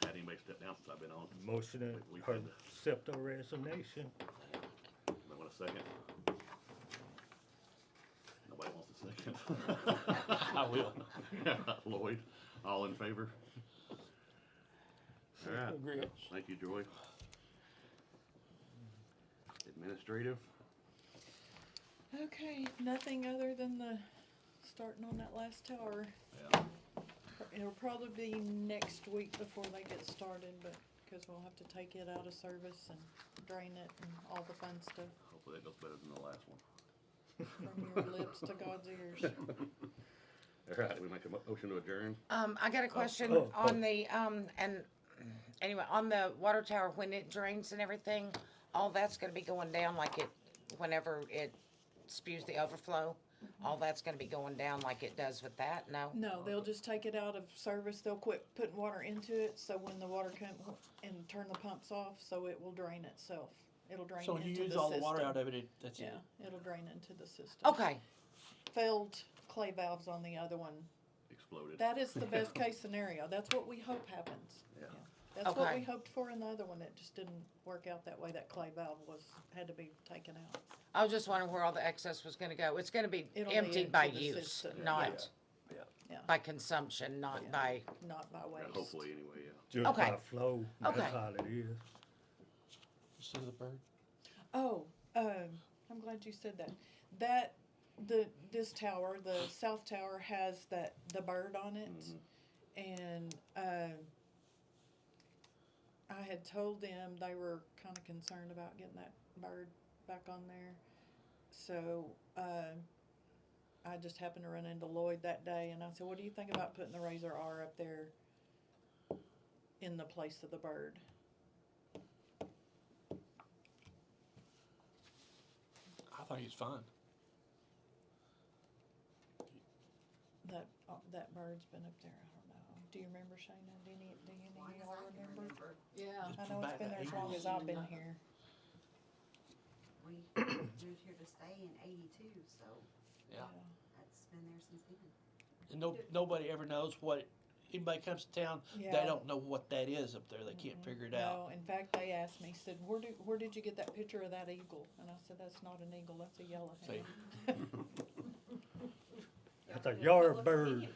down since I've been on. Motion We- we to can- accept her resignation. Anybody want a second? Nobody wants a second. I will. Lloyd, all in favor? All right, Regrets. thank you, Joy. Administrative, Okay, nothing other than the, starting on that last tower. yeah, It'll probably be next week before they get started, but, cause we'll have to take it out of service and drain it and all the fun stuff hopefully that goes better than the last one. from your lips to God's ears. All right, we make a mo- motion to adjourn? Um, I got a question oh, oh. on the, um, and, anyway, on the water tower, when it drains and everything, all that's gonna be going down like it, whenever it spews the overflow, Mm-hmm. all that's gonna be going down like it does with that, no? No, they'll just take it out of service. They'll quit putting water into it, so when the water come and turn the pumps off, so it will drain itself. It'll drain So into the when you system. use all the water out of it, it, that's Yeah, it. it'll drain into the system. Okay, Failed clay valves on the other one. Exploded. That is the best case scenario. That's what we hope happens. Yeah. That's what we Okay. hoped for in the other one. It just didn't work out that way. That clay valve was, had to be taken out. I was just wondering where all the excess was gonna go, it's gonna be It'll be emptied by into the use, system. not Yeah, Yeah, by consumption, not Yeah. by, not by Yeah, waste. hopefully, anyway, yeah. Just Okay. by flow, Okay. that's all it is. So the bird. Oh, um, I'm glad you said that. That, the, this tower, the south tower has that, the bird on it. And, um, I had told them they were kinda concerned about getting that bird back on there. So, um, I just happened to run into Lloyd that day and I said, what do you think about putting the Razor R up there in the place of the bird? I thought he was fine. That, uh, that bird's been up there, I don't know. Do you remember Shayna? Do any, do any of y'all remember? Yeah, Oh, I know it's been there as long as I've been here. we moved here to stay in eighty-two, so Yeah. that's been there since then. And no, nobody ever knows what, anybody comes to town, Yeah. Mm-hmm. they don't know what that is up there. They can't figure it No, out. in fact, they asked me, said, where do, where did you get that picture of that eagle? And I said, that's not an eagle, that's a See, yellowhead. That's a yard bird.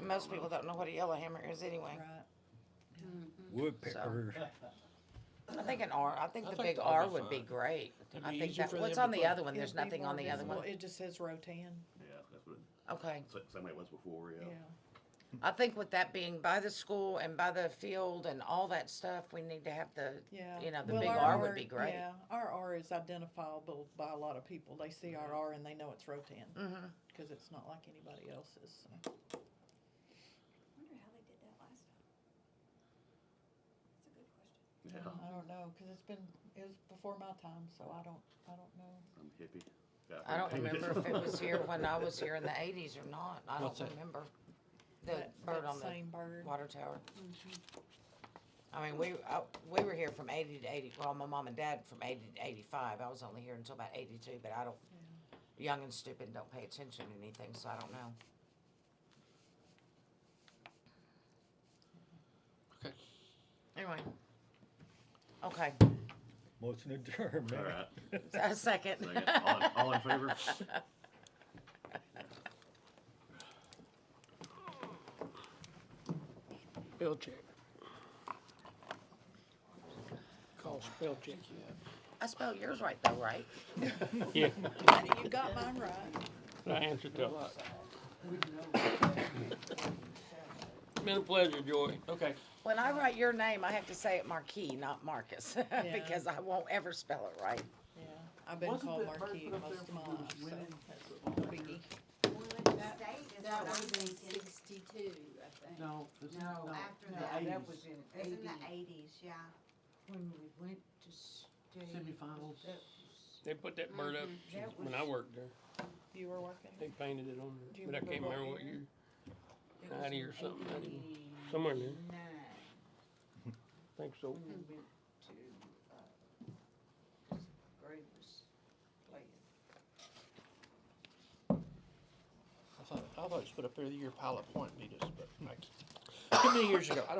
most people don't know what a yellowhammer is anyway. Right, Mm-hmm. Woodpecker. I think an R, I think I the think big that would be R would be fine. great. It'd I be think easier that, for what's them on to the put- other one? There's It'd be nothing more on the other visible. one. It just says Rotan, Yeah, that's what, Okay. it- same way it was before, yeah. yeah. I think with that being by the school and by the field and all that stuff, we need to have the, Yeah. you know, the Well, big our R would be great. Yeah, our R is identifiable by a lot of people. They see our R and they know it's Rotan. Mm-hmm. Cause it's not like anybody else's, so. Wonder how they did that last time. That's a good question. Yeah, I don't know, cause it's been, it was before my time, so I don't, I don't know. I'm hippie. Yeah, I don't think- remember if it was here when I was here in the eighties or not. I What's don't that? remember. The That, bird that on the same Mm-hmm. bird. water tower. I mean, we, I, we were here from eighty to eighty, well, my mom and dad from eighty to eighty-five. I was only here until about eighty-two, but I don't, young and stupid, don't pay attention to anything, so I don't know. okay. Anyway. Okay, Motion adjourned, All man. right. a second. Second. All, in- all in favor? Spell check. Call spell check. I spelled yours right though, right? Yeah, You got mine right. I answered to a lot. Been a pleasure, Joy. Okay. When I write your name, I have to say it Marquis, not Marcus, Yeah. because I won't ever spell it right. Yeah, I've been Wasn't called that bird Marquis put up most of there my for life, Bruce so Wayne? that's no biggie. That- That what I'm was in thinking. sixty-two, I think. No, No, after that, that was in It was in the eighty, eighties, yeah. when we went to state. Semifinals. That was- They put that bird up That when I worked there. You were working? They painted it on Do there, you but I can't remember remember what what year? year. it was 90 or in something, 90. 89. Somewhere in there. Think so. We went to, uh, 'cause Gray was playing. I thought I thought it was put up there the year Pilot Point beat us, but like, too many years ago. I don't